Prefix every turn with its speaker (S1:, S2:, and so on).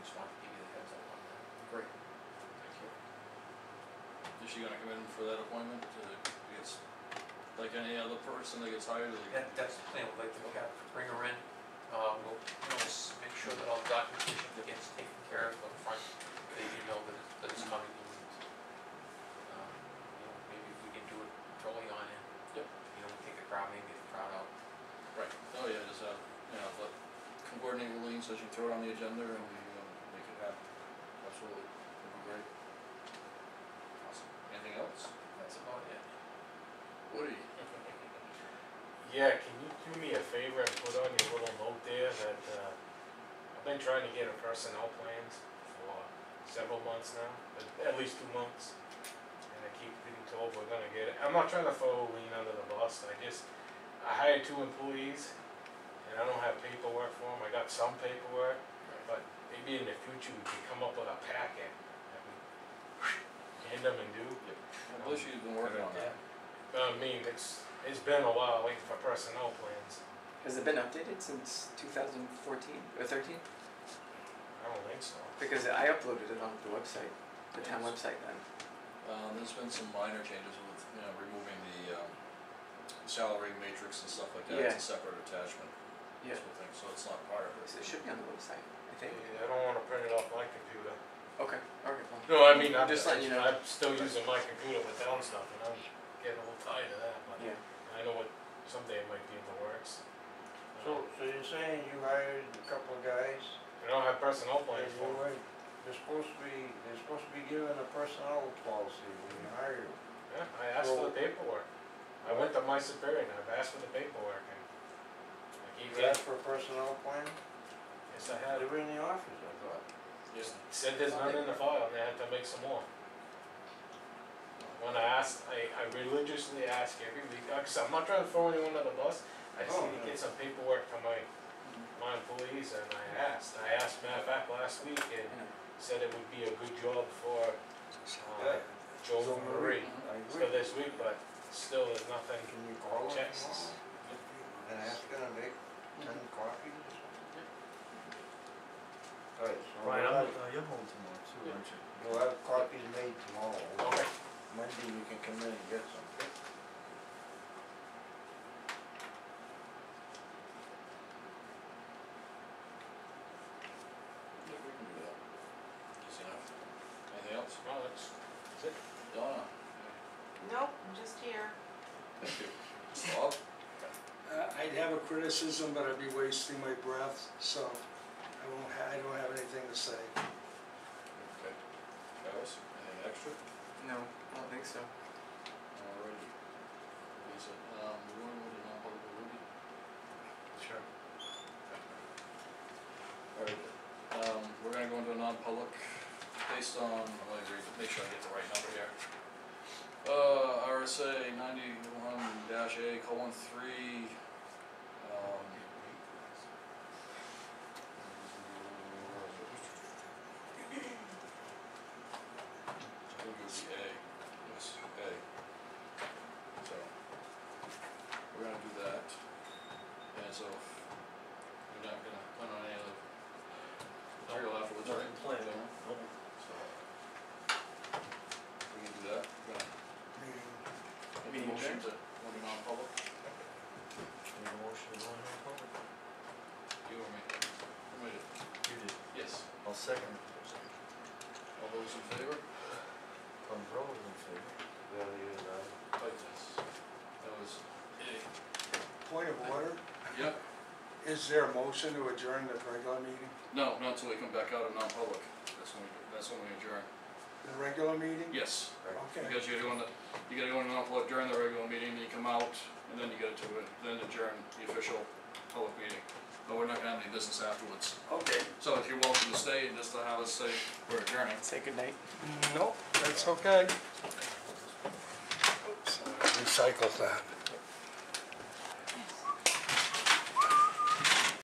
S1: she gonna come in for that appointment, uh, it's like any other person that gets hired, like,
S2: That, that's the plan, we'd like to have, bring her in, uh, we'll, you know, s- make sure that all the documentation gets taken care of up front, that you know that, that it's coming. and, um, You know, maybe if we can do it early on and,
S1: Yep.
S2: you know, take the crowd, maybe get the crowd out.
S1: right, oh yeah, just have, you know, but coordinate with Lean so she can throw it on the agenda and we, um, make it happen, absolutely, that'd be great. Awesome, anything else?
S2: That's about it.
S1: Woody?
S3: Yeah, can you do me a favor and put on your little note there that, uh, I've been trying to get a personnel plan for several months now, at- at least two months. And I keep being told we're gonna get it. I'm not trying to throw Lean under the bus, I just, I hired two employees and I don't have paperwork for them. I got some paperwork, but maybe in the future we can come up with a packet that we hand them and do.
S1: I believe she's been working on that.
S3: I mean, it's, it's been a while waiting for personnel plans.
S4: Has it been updated since 2014 or 13?
S3: I don't think so.
S4: Because I uploaded it onto the website, the town website then.
S1: Um, there's been some minor changes with, you know, removing the, um, salary matrix and stuff like that, it's a separate attachment,
S4: Yeah.
S1: that's what I think, so it's not part of it.
S4: So it should be on the website, I think.
S3: Yeah, I don't wanna print it off my computer.
S4: Okay, alright, well.
S3: No, I mean, I'm
S4: Just
S3: just,
S4: letting you know.
S3: I'm still using my computer with Dell and stuff, and I'm getting a little tired of that, but
S4: Yeah,
S3: I know what, someday it might be in the works. Uh,
S5: So, so you're saying you hired a couple of guys,
S3: I don't have personnel
S5: and
S3: plans
S5: you
S3: for,
S5: were, they're supposed to be, they're supposed to be given a personnel policy when you hire them.
S3: yeah, I asked for the paperwork. I went to my superior and I've asked for the paperwork and I keep
S5: You asked for a personnel plan?
S3: yes, I
S5: They
S3: had,
S5: were in the office, I thought.
S3: just said there's none in the file and I had to make some more. When I asked, I, I religiously ask every week, uh, cause I'm not trying to throw anyone under the bus, I just
S5: Oh,
S3: need to
S5: no.
S3: get some paperwork to my my employees and I asked, I asked, matter of fact, last week and said it would be a good job for, uh,
S5: Yeah.
S3: Joe Marie.
S5: I
S3: So
S5: agree.
S3: this week, but still there's nothing,
S5: Can you call them
S3: Checks. Mm-hmm.
S5: tomorrow and ask them to make ten copies or something? Alright, so
S6: Right, I'm,
S5: we'll
S6: uh,
S5: have,
S6: you're home tomorrow too, aren't you?
S5: we'll have copies made tomorrow.
S3: okay,
S5: Monday you can come in and get some.
S1: Yeah, we can do that. Easy enough. Anything else?
S3: well, that's, that's it.
S1: Donna?
S7: Nope, I'm just here.
S1: Thank you. Bob?
S8: Uh, I'd have a criticism, but I'd be wasting my breath, so I won't, ha- I don't have anything to say.
S1: Okay. Alice, anything extra?
S4: no, I don't think so.
S1: Alrighty. Lisa, um, we want to move on to Ruby?
S3: Sure.
S1: Alright, um, we're gonna go into a non-public based on, let me read, make sure I get the right number here. Uh, RSA ninety-one dash A colon three, um. I think it was A, yes, A. So, we're gonna do that, and so, if we're not gonna plan on any other material afterwards, right?
S6: Nothing planned,
S1: Done?
S6: Nope.
S1: So. We can do that, we're gonna
S5: Meeting
S1: make a
S4: Meeting
S1: motion
S4: adjourned?
S1: to, want to non-public,
S6: Need a motion to go into public?
S1: you or me? Who made it?
S6: You did.
S1: Yes,
S6: I'll second.
S1: all those in favor?
S6: Tom Brown was in favor.
S1: Like this. That was A.
S8: Point of order,
S1: Yep,
S8: is there a motion to adjourn the regular meeting,
S1: no, not until we come back out of non-public, that's when we, that's when we adjourn,
S8: the regular meeting?
S1: yes.
S8: Okay,
S1: Because you gotta go into, you gotta go into non-public during the regular meeting, then you come out, and then you get to, it- then adjourn the official public meeting. But we're not gonna have any business afterwards.
S4: Okay.
S1: So if you're welcome to stay and just to have us say we're adjourning.
S4: Say goodnight.
S8: nope, that's okay. Recycle that.